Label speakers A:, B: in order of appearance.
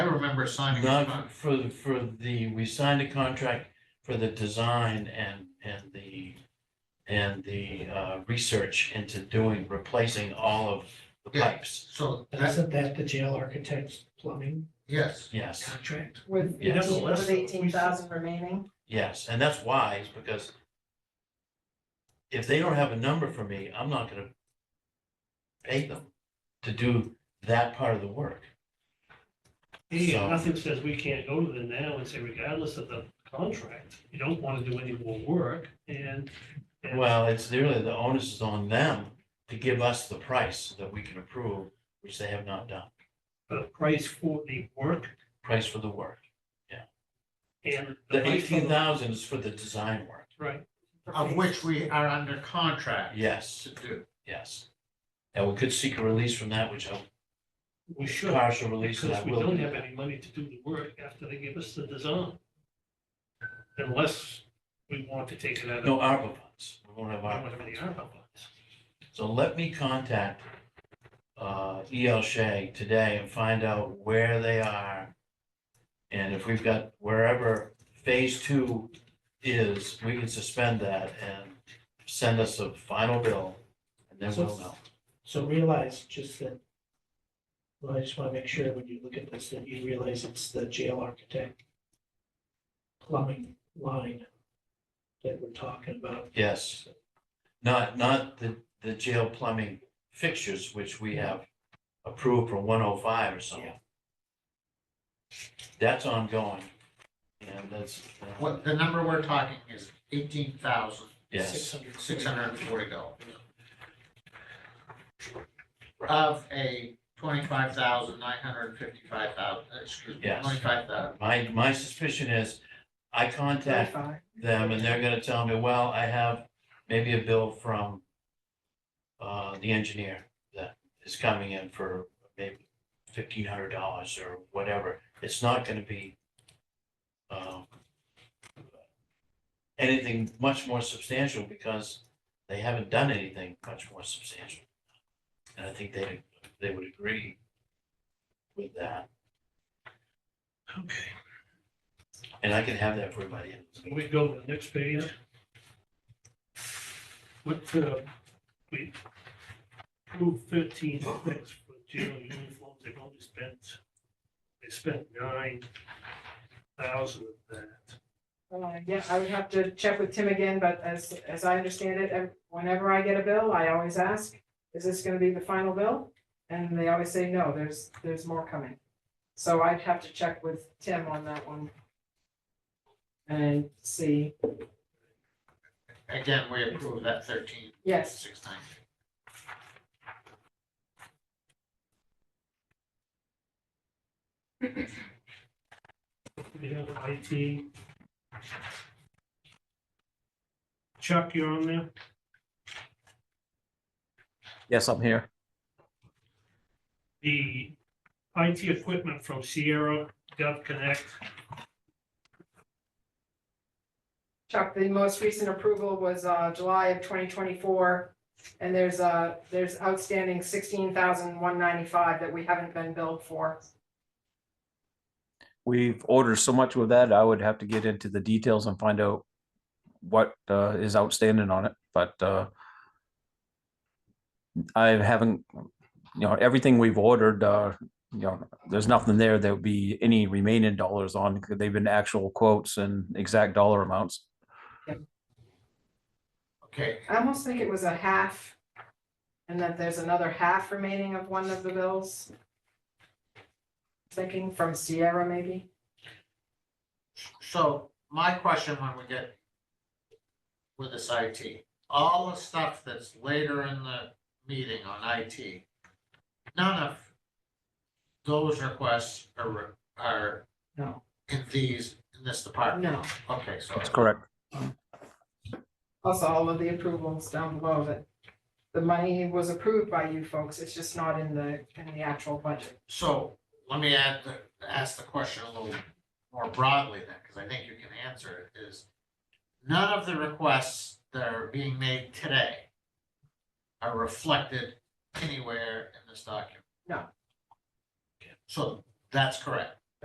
A: we're signing. a
B: Not
A: contract.
B: for, for the, we signed a contract for the design and, and the, and the uh, research into doing, replacing all of the
A: Yeah.
B: pipes.
A: So that,
C: Isn't that the jail architect's plumbing
A: yes,
B: Yes,
C: contract?
D: With
B: Yes.
D: eighteen, with eighteen thousand remaining,
B: yes, and that's wise, because if they don't have a number for me, I'm not gonna pay them to do that part of the work.
E: Yeah,
B: So-
E: nothing says we can't go to them now and say regardless of the contract, you don't want to do any more work and. and-
B: Well, it's really, the onus is on them to give us the price that we can approve, which they have not done,
E: The price for the work
B: price for the work.
E: and.
B: The
E: price for
B: eighteen thousand is for the design work,
E: Right,
A: of which we are under contract
B: yes,
A: to do.
B: yes. And we could seek a release from that, which I'll,
E: we should,
B: partial release, and I
E: because we
B: will.
E: don't
B: do
E: have
B: that.
E: any money to do the work after they give us the design. Unless we want to take it out of.
B: No ARPA funds, we won't have
E: I don't
B: ARPA
E: have
B: funds.
E: any ARPA funds.
B: So let me contact uh, E.L. Shea today and find out where they are. And if we've got wherever phase two is, we can suspend that and send us a final bill. And then we'll know.
C: So realize just that. Well, I just want to make sure when you look at this, that you realize it's the jail architect. Plumbing line. That we're talking about.
B: Yes. Not, not the, the jail plumbing fixtures, which we have approved for one oh five or something. That's ongoing. And that's, uh,
A: What, the number we're talking is eighteen thousand,
B: yes,
A: six hundred and forty dollars. Of a twenty-five thousand, nine hundred and fifty-five thousand, excuse me,
B: Yes.
A: twenty-five thousand.
B: my, my suspicion is I contact
D: thirty-five.
B: them and they're gonna tell me, well, I have maybe a bill from uh, the engineer that is coming in for maybe fifteen hundred dollars or whatever. It's not gonna be um, anything much more substantial because they haven't done anything much more substantial. And I think they, they would agree with that. Okay. And I can have that for everybody.
E: Can we go to the next page? What, uh, we approved thirteen things for jail uniforms, they've only spent, they spent nine thousand of that.
D: Uh, Yeah, I would have to check with Tim again, but as, as I understand it, ev- whenever I get a bill, I always ask, is this gonna be the final bill? And they always say, no, there's, there's more coming. So I'd have to check with Tim on that one. And see,
A: Again, we approve that thirteen,
D: yes,
A: six ninety.
E: We have IT. Chuck, you're on there?
F: Yes, I'm here.
E: The IT equipment from Sierra Gov Connect,
D: Chuck, the most recent approval was, uh, July of twenty twenty-four. And there's, uh, there's outstanding sixteen thousand one ninety-five that we haven't been billed for.
F: We've ordered so much with that, I would have to get into the details and find out what uh, is outstanding on it, but uh, I haven't, you know, everything we've ordered, uh, you know, there's nothing there that would be any remaining dollars on. 'cause They've been actual quotes and exact dollar amounts.
A: Okay,
D: I almost think it was a half. And that there's another half remaining of one of the bills. Thinking from Sierra maybe.
A: So my question when we get with this IT, all the stuff that's later in the meeting on IT, none of those requests are, are
D: No.
A: in these, in this department.
D: No.
A: Okay, so
F: That's correct.
D: Also, all of the approvals down below that the money was approved by you folks. It's just not in the, in the actual budget.
A: So let me add, the- ask the question a little more broadly then, because I think you can answer it, is none of the requests that are being made today are reflected anywhere in this document?
D: No.
A: So that's correct.